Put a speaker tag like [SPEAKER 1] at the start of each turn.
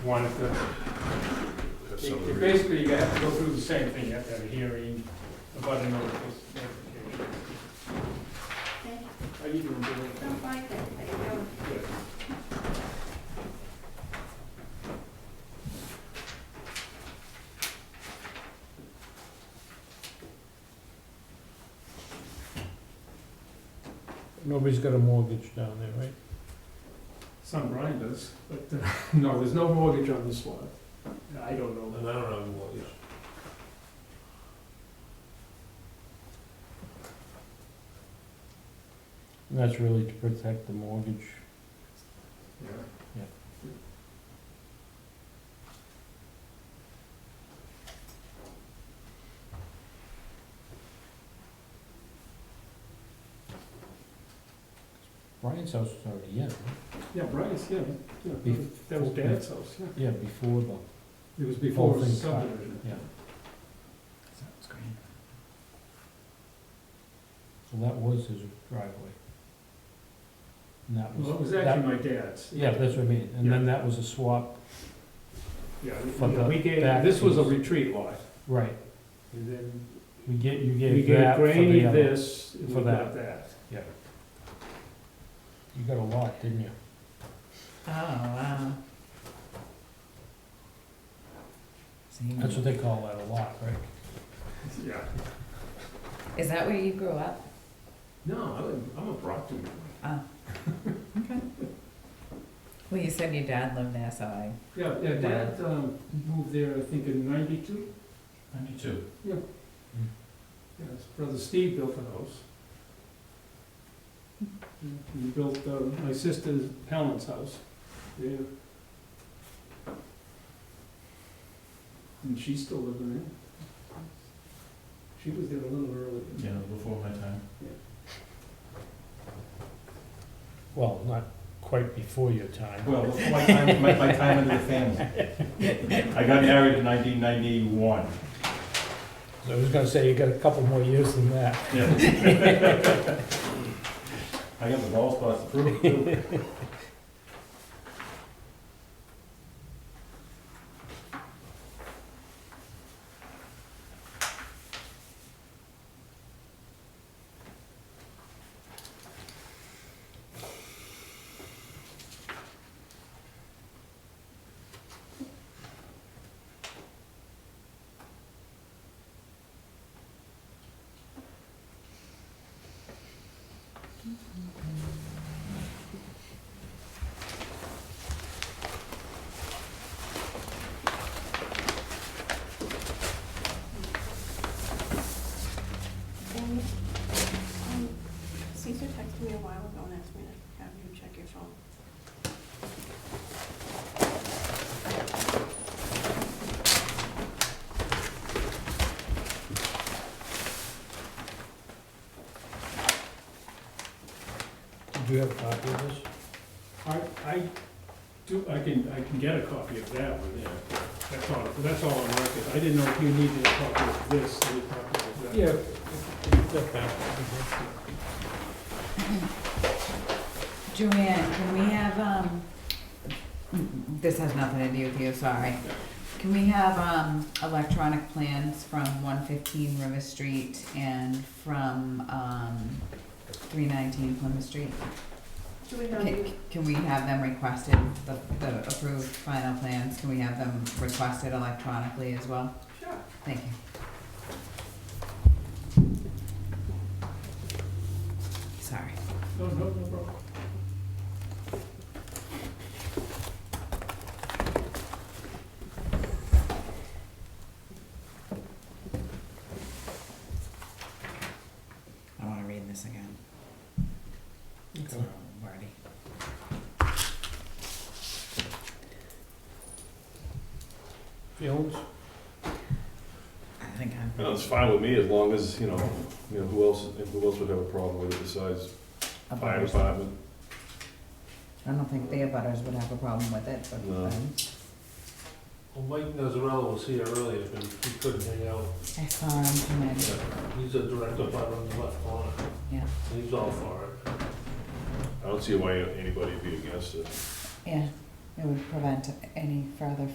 [SPEAKER 1] wanted to,
[SPEAKER 2] Have some of the-
[SPEAKER 1] basically, you have to go through the same thing, you have to have a hearing about a notification.
[SPEAKER 3] Okay,
[SPEAKER 1] Are you doing
[SPEAKER 3] so
[SPEAKER 1] good?
[SPEAKER 3] fine, good. I can go.
[SPEAKER 1] Yes.
[SPEAKER 4] Nobody's got a mortgage down there, right?
[SPEAKER 1] Son Brian does, but, uh, no, there's no mortgage on this lot. I don't know.
[SPEAKER 2] And I don't have a mortgage.
[SPEAKER 4] And that's really to protect the mortgage.
[SPEAKER 1] Yeah.
[SPEAKER 4] Yeah. Brian's house was already in, right?
[SPEAKER 1] Yeah, Bryce, yeah, yeah,
[SPEAKER 4] Bef-
[SPEAKER 1] that was Dad's house, yeah.
[SPEAKER 4] yeah, before the,
[SPEAKER 1] It was before
[SPEAKER 4] Whole thing cut.
[SPEAKER 1] subdivision.
[SPEAKER 4] yeah. So that was his driveway. And that was.
[SPEAKER 1] Well, it was
[SPEAKER 4] that-
[SPEAKER 1] actually my dad's.
[SPEAKER 4] Yeah, that's what I mean, and then that was a swap,
[SPEAKER 1] Yeah, we-
[SPEAKER 4] For the
[SPEAKER 1] we gave,
[SPEAKER 4] back
[SPEAKER 1] this was a
[SPEAKER 4] piece.
[SPEAKER 1] retreat lot,
[SPEAKER 4] right,
[SPEAKER 1] and then
[SPEAKER 4] we get, you
[SPEAKER 1] we
[SPEAKER 4] gave
[SPEAKER 1] gave
[SPEAKER 4] that for
[SPEAKER 1] Granny
[SPEAKER 4] the other.
[SPEAKER 1] this, and we
[SPEAKER 4] for
[SPEAKER 1] got
[SPEAKER 4] that.
[SPEAKER 1] that.
[SPEAKER 4] You got a lot, didn't you?
[SPEAKER 5] Oh, wow.
[SPEAKER 4] That's what they call that, a lot, right?
[SPEAKER 1] Yeah.
[SPEAKER 5] Is that where you grew up?
[SPEAKER 1] No, I'm, I'm a Brockton boy.
[SPEAKER 5] Well, you said your dad lived there, so I.
[SPEAKER 1] Yeah, yeah, Dad, um, moved there, I think, in ninety-two.
[SPEAKER 2] Ninety-two.
[SPEAKER 1] Yeah, his brother Steve built the house. Yeah, He built, uh, my sister's Helen's house there. And she's still living there. She was there a little earlier.
[SPEAKER 2] Yeah, before my time.
[SPEAKER 4] Well, not quite before your time.
[SPEAKER 2] Well, before my time, my, my time in the family. I got married in nineteen ninety-one.
[SPEAKER 4] I was gonna say, you got a couple more years than that.
[SPEAKER 2] I got the ball spots to prove it too.
[SPEAKER 3] And, um, Caesar texted me a while ago and asked me to have you check your phone.
[SPEAKER 4] Do you have a copy of this?
[SPEAKER 1] I, I do, I can, I can get a copy of that one, yeah. That's all, that's all on record. I didn't know if you needed a copy of this, or a copy of that.
[SPEAKER 5] Joanne, can we have, um, this has nothing to do with you, sorry. Can we have, um, electronic plans from one fifteen River Street and from, um, three nineteen Plymouth Street?
[SPEAKER 3] Do we have you?
[SPEAKER 5] Can can we have them requested, the, the approved final plans, can we have them requested electronically as well?
[SPEAKER 3] Sure.
[SPEAKER 5] Thank you. Sorry.
[SPEAKER 1] No, no, no problem.
[SPEAKER 5] I wanna read this again. It's a
[SPEAKER 4] Okay.
[SPEAKER 5] little wordy.
[SPEAKER 4] Fields?
[SPEAKER 5] I think I'm.
[SPEAKER 2] No, it's fine with me as long as, you know, you know, who else, who else would have a problem with it besides
[SPEAKER 5] a
[SPEAKER 2] fire
[SPEAKER 5] butters.
[SPEAKER 2] department?
[SPEAKER 5] I don't think their butters would have a problem with it, but.
[SPEAKER 2] No.
[SPEAKER 5] um,
[SPEAKER 6] Well, Mike Nazarella was here earlier, but he couldn't hang out.
[SPEAKER 5] I saw him come in.
[SPEAKER 6] He's a direct abutter on the left corner.
[SPEAKER 5] Yeah.
[SPEAKER 6] He's all for it.
[SPEAKER 2] I don't see why anybody would be against it.
[SPEAKER 5] yeah, It would prevent any further